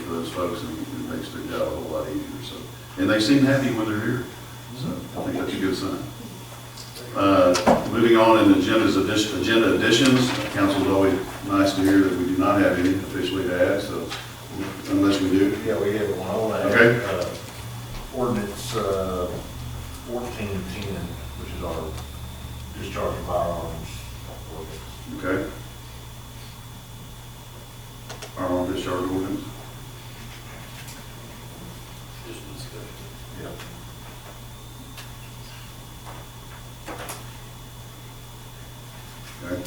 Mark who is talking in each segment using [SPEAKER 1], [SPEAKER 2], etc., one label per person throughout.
[SPEAKER 1] folks, and it makes their job a whole lot easier, so. And they seem happy when they're here, so I think that's a good sign. Uh, Moving on in agendas, addition- agenda additions, council is always nice to hear that we do not have any officially to add, so unless we do.
[SPEAKER 2] Yeah, we have one on that.
[SPEAKER 1] Okay.
[SPEAKER 2] Uh, Ordinance uh, fourteen ten, which is our discharge of firearms ordinance.
[SPEAKER 1] Okay. Firearm discharge ordinance?
[SPEAKER 2] Yeah.
[SPEAKER 1] Okay.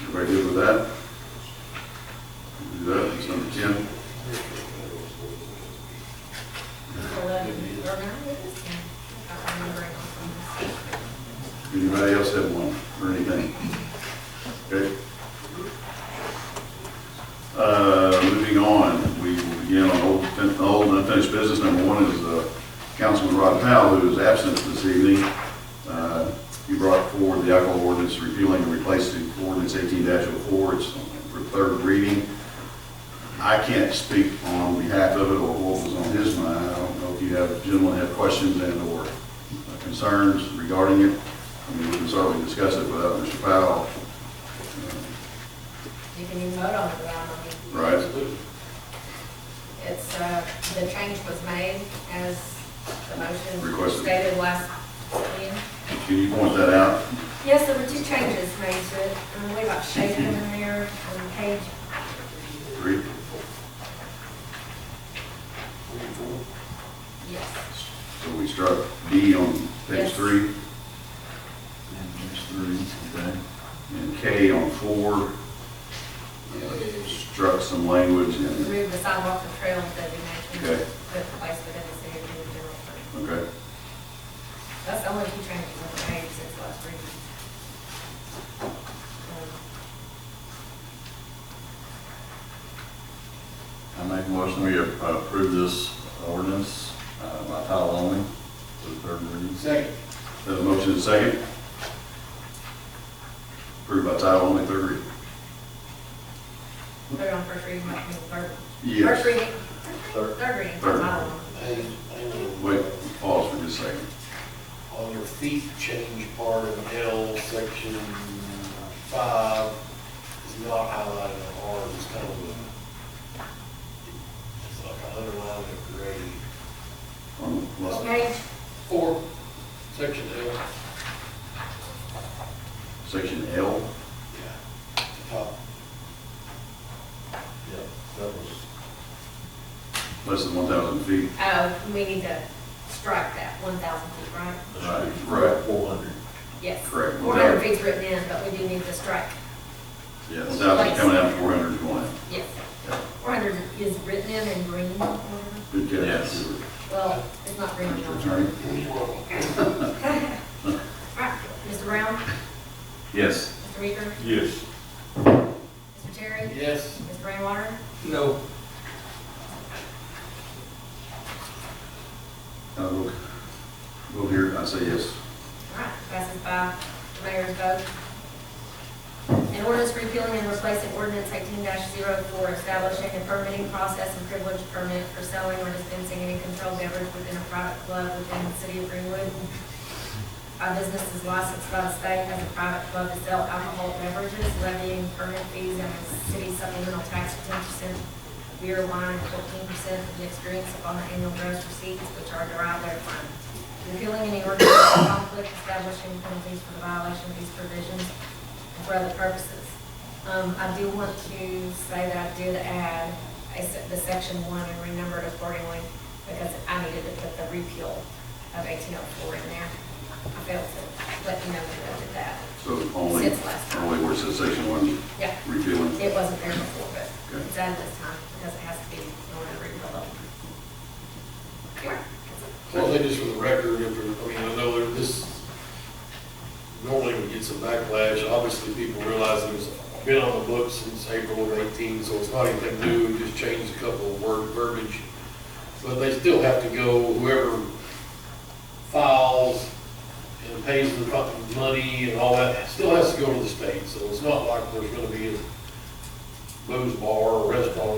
[SPEAKER 1] Everybody good with that? Do that, it's number ten.
[SPEAKER 3] Eleven, or nine, it is ten. I can't remember right now.
[SPEAKER 1] Anybody else have one or anything? Okay. Uh, moving on, we will begin on old, old and unfinished business. Number one is, uh, Councilman Rod Powell, who is absent this evening. Uh, he brought forward the alcohol ordinance repealing and replacing ordinance eighteen 4 It's for third reading. I can't speak on behalf of it or what was on his mind. I don't know if you have, gentlemen have questions and/or concerns regarding it. I mean, we can certainly discuss it without Mr. Powell.
[SPEAKER 3] You can even vote on it without
[SPEAKER 1] Uh,
[SPEAKER 3] me.
[SPEAKER 1] Right.
[SPEAKER 3] It's, uh, the change was made as the motion
[SPEAKER 1] Requested.
[SPEAKER 3] stated last meeting.
[SPEAKER 1] Can you point that out?
[SPEAKER 3] Yes, there were two changes made to it, and we got shaded in there on page,
[SPEAKER 1] Three?
[SPEAKER 3] yes.
[SPEAKER 1] So we struck D on page
[SPEAKER 3] Yes.
[SPEAKER 1] three and K on four. Uh, Struck some language in,
[SPEAKER 3] Remove the sidewalk and trail designation,
[SPEAKER 1] Okay.
[SPEAKER 3] put the place within the city of Boone general fund.
[SPEAKER 1] okay?
[SPEAKER 3] That's the only two changes on the page since last reading. Um,
[SPEAKER 4] I make a motion we approve this ordinance uh, by title only for the third reading.
[SPEAKER 5] Second.
[SPEAKER 1] Have a motion and second. Approved by title only, third reading.
[SPEAKER 3] Put it on first reading, might be the third.
[SPEAKER 1] Yes.
[SPEAKER 3] First reading,
[SPEAKER 2] Third,
[SPEAKER 3] third reading,
[SPEAKER 1] Third.
[SPEAKER 3] I don't know.
[SPEAKER 5] And, and
[SPEAKER 1] Wait, pause for just a second.
[SPEAKER 5] on your feet change part of L section five is not highlighted on ours, it's kind of a, it's like an underline of gray.
[SPEAKER 1] Um, let's-
[SPEAKER 3] What page?
[SPEAKER 5] Four, section L,
[SPEAKER 1] Section L,
[SPEAKER 5] yeah, top.
[SPEAKER 2] yeah, that was,
[SPEAKER 1] less than one thousand feet.
[SPEAKER 3] Oh, we need to strike that one thousand feet, right?
[SPEAKER 2] that should be
[SPEAKER 1] Right.
[SPEAKER 2] four hundred.
[SPEAKER 3] Yes.
[SPEAKER 1] Correct.
[SPEAKER 3] Four hundred feet's written in, but we do need to strike,
[SPEAKER 1] One
[SPEAKER 4] Yes.
[SPEAKER 1] thousand coming out, four hundred going in.
[SPEAKER 3] yes. Four hundred is written in in green, whatever.
[SPEAKER 1] Good catch.
[SPEAKER 4] Yes.
[SPEAKER 3] well, it's not green.
[SPEAKER 1] Mr. Attorney?
[SPEAKER 3] Right, Mr. Brown,
[SPEAKER 4] Yes.
[SPEAKER 3] Mr. Meeker,
[SPEAKER 4] Yes.
[SPEAKER 3] Mr. Terry?
[SPEAKER 5] Yes,
[SPEAKER 3] Mr. Rainwater?
[SPEAKER 5] no,
[SPEAKER 1] Uh, look, look here, I say yes.
[SPEAKER 3] All right, passes by the mayor's vote. An ordinance repealing and replacing ordinance eighteen 4 establishing a permitting process and privilege permit for selling or dispensing any controlled beverage within a private club within the city of Greenwood. Our business is licensed by the state as a private club to sell alcohol beverages, levying permit fees and a city supplemental tax of ten percent, beer, wine, fourteen percent of mixed drinks upon the annual gross receipts which are derived therefrom. Repealing any ordinance in conflict, establishing penalties for the violation of these provisions and for other purposes. Um, I do want to say that I did add a se- the section one and renumbered accordingly because I needed to put the repeal of eighteen oh four in there. I failed to let you know that I did that.
[SPEAKER 1] So only,
[SPEAKER 3] Since last time.
[SPEAKER 1] only where it says section one
[SPEAKER 3] Yeah,
[SPEAKER 1] repealing.
[SPEAKER 3] it wasn't there before, but it's added this time because it has to be in order to repeal it. Here.
[SPEAKER 5] well, just for the record, if, there- I mean, I know there- this normally would get some backlash, obviously people realize it was been on the books since April of eighteen, so it's not anything new, we just changed a couple of word verbiage. But they still have to go, whoever files and pays the fucking money and all that, it still has to go to the state, so it's not like there's gonna be a booze bar or restaurant